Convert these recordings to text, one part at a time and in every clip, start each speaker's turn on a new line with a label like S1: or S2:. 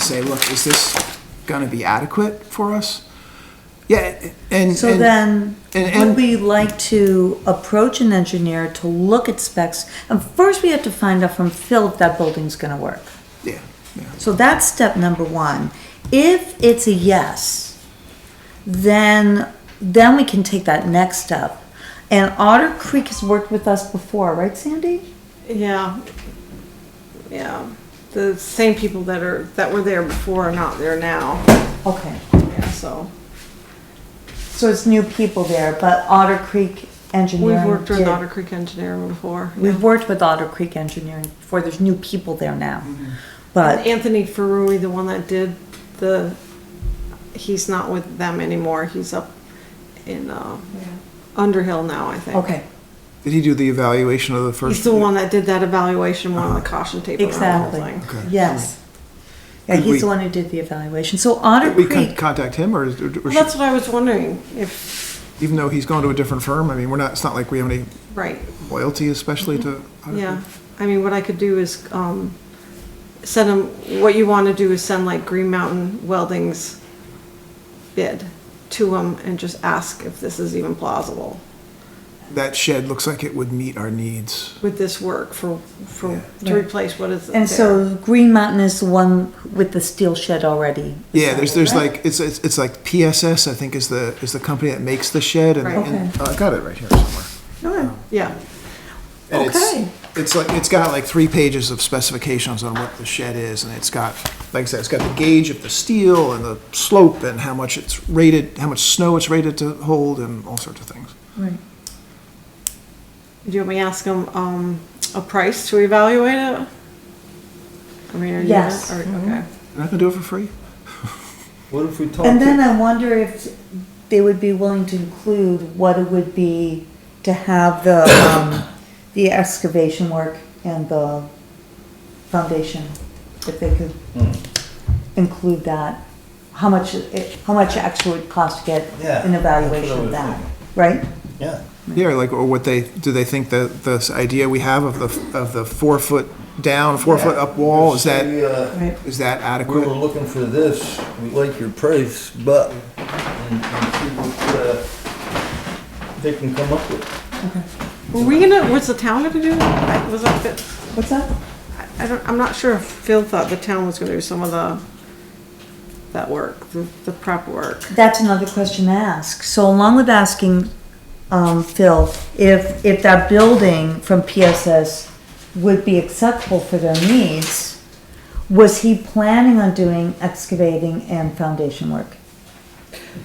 S1: say, look, is this gonna be adequate for us? Yeah, and.
S2: So
S1: and-
S2: then,
S1: and-
S2: would
S1: and-
S2: we like to approach an engineer to look at specs? And first, we have to find out from Phil if that building's gonna work.
S1: Yeah, yeah.
S2: So that's step number one. If it's a yes, then, then we can take that next step. And Otter Creek has worked with us before, right, Sandy?
S3: Yeah. Yeah. The same people that are, that were there before are not there now,
S2: Okay.
S3: yeah, so.
S2: So it's new people there, but Otter Creek Engineering.
S3: We've worked with
S2: did-
S3: Otter Creek Engineer before. yeah.
S2: We've worked with Otter Creek Engineering before. There's new people there now.
S1: Mm-hmm.
S2: But
S3: Anthony Ferrui, the one that did the, he's not with them anymore, he's up in, uh, Underhill now, I think.
S2: Okay,
S1: Did he do the evaluation of the first?
S3: He's the one that did that evaluation, one on the caution tape around the whole
S2: exactly.
S3: thing.
S1: Okay.
S2: Yes. Yeah,
S1: Could we-
S2: he's the one who did the evaluation. So Otter
S1: Did we con-
S2: Creek,
S1: contact him, or, is- or
S3: Well,
S1: should-
S3: That's what I was wondering, if,
S1: even though he's gone to a different firm, I mean, we're not, it's not like we have any
S3: right,
S1: loyalty especially to.
S3: Mm-hmm. yeah. I mean, what I could do is, um, send him, what you wanna do is send like Green Mountain Welding's bid to him and just ask if this is even plausible
S1: That shed looks like it would meet our needs.
S3: with this work for, for, to
S2: Yeah.
S3: replace what is there.
S2: and so Green Mountain is the one with the steel shed already.
S1: Yeah, there's, there's like, it's, it's, it's like PSS, I think is the, is the company that makes the shed and,
S3: Right.
S1: and, uh, I got it right here somewhere. um,
S2: Okay.
S3: Yeah,
S1: And it's-
S2: Okay.
S1: It's like, it's got like three pages of specifications on what the shed is, and it's got, like I said, it's got the gauge of the steel and the slope and how much it's rated, how much snow it's rated to hold and all sorts of things.
S2: Right.
S3: do you want me to ask him, um, a price to evaluate it? I mean, are you?
S2: Yes. Mm-hmm.
S3: or- Okay.
S1: And I can do it for free?
S4: What if we talk?
S2: And then I wonder if they would be willing to include what it would be to have the, um, the excavation work and the foundation, if they could
S4: Hmm.
S2: include that. How much, it- how much actually would cost to
S4: Yeah,
S2: get an
S4: that's what I
S2: evaluation of
S4: was
S2: that,
S4: thinking.
S2: right?
S4: Yeah,
S1: Yeah, or like, or what they, do they think that this idea we have of the, of the four foot down, four foot
S4: Yeah.
S1: up wall, is that,
S4: We, uh,
S2: Right.
S1: is that
S4: We were
S1: adequate?
S4: looking for this, we like your price, but, and, and see what, uh, they can come up with.
S3: Were we gonna, was the town gonna do, that? was that, the-
S2: What's that?
S3: I don't, I'm not sure if Phil thought the town was gonna do some of the, that work, the, the prep work.
S2: That's another question to ask. So along with asking, um, Phil, if, if that building from PSS would be acceptable for their needs, was he planning on doing excavating and foundation work?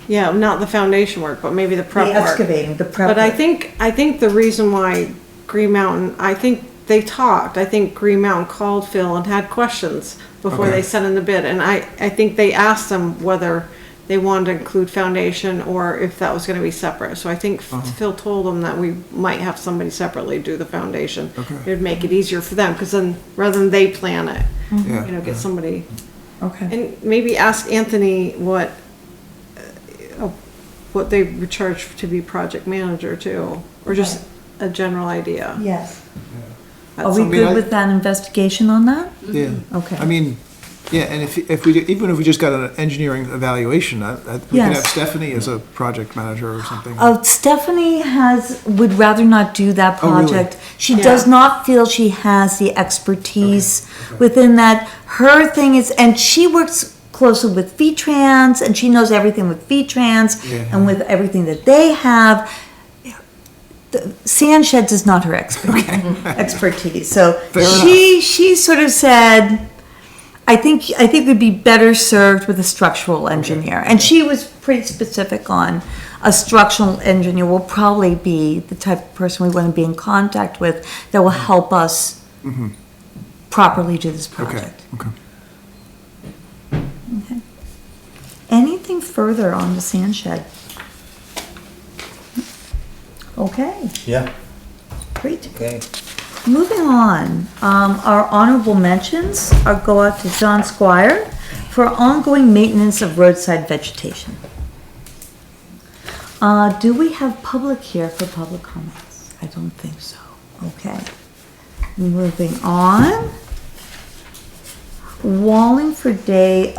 S3: Yeah, not the foundation work, but maybe the prep
S2: The
S3: work.
S2: excavating, the prep.
S3: But I
S2: work.
S3: think, I think the reason why Green Mountain, I think they talked, I think Green Mountain called Phil and had questions before
S1: Okay.
S3: they sent in the bid, and I, I think they asked them whether they wanted to include foundation or if that was gonna be separate, so I think
S1: Uh-huh.
S3: Phil told them that we might have somebody separately do the foundation.
S1: Okay.
S3: It'd make it easier for them, cause then, rather than they plan it, you know,
S1: Yeah,
S3: get somebody,
S2: Okay,
S3: and maybe ask Anthony what, uh, what they were charged to be project manager too, or just a general idea.
S2: yes.
S3: That's
S2: Are we
S3: something-
S1: mean, I-
S2: good with that investigation on that?
S1: yeah.
S2: Okay.
S1: I mean, yeah, and if, if we, do- even if we just got an engineering evaluation, I, I, we could
S2: Yes.
S1: have Stephanie as a project manager or something.
S2: Oh, Stephanie has, would rather not do that
S1: Oh, really?
S2: project. She does
S3: Yeah.
S2: not feel she has the expertise within that. Her thing is, and she works closely with V-Trans, and she knows everything with V-Trans,
S1: Yeah.
S2: and with everything that they have. The- Sand sheds is not her expertise, expertise, so
S1: Fair enough.
S2: she, she sort of said, I think I think we'd be better served with a structural engineer. And she was pretty specific on a structural engineer will probably be the type of person we want to be in contact with that will help us properly do this
S1: Mm-hmm. Okay,
S2: project.
S1: okay.
S2: Anything further on the sand shed? Okay,
S4: Yeah,
S2: great.
S4: okay.
S2: Moving on, um, our honorable mentions are go out to John Squire for ongoing maintenance of roadside vegetation. Uh, do we have public here for public comments? I don't think so. Okay. Moving on. Wallingford Day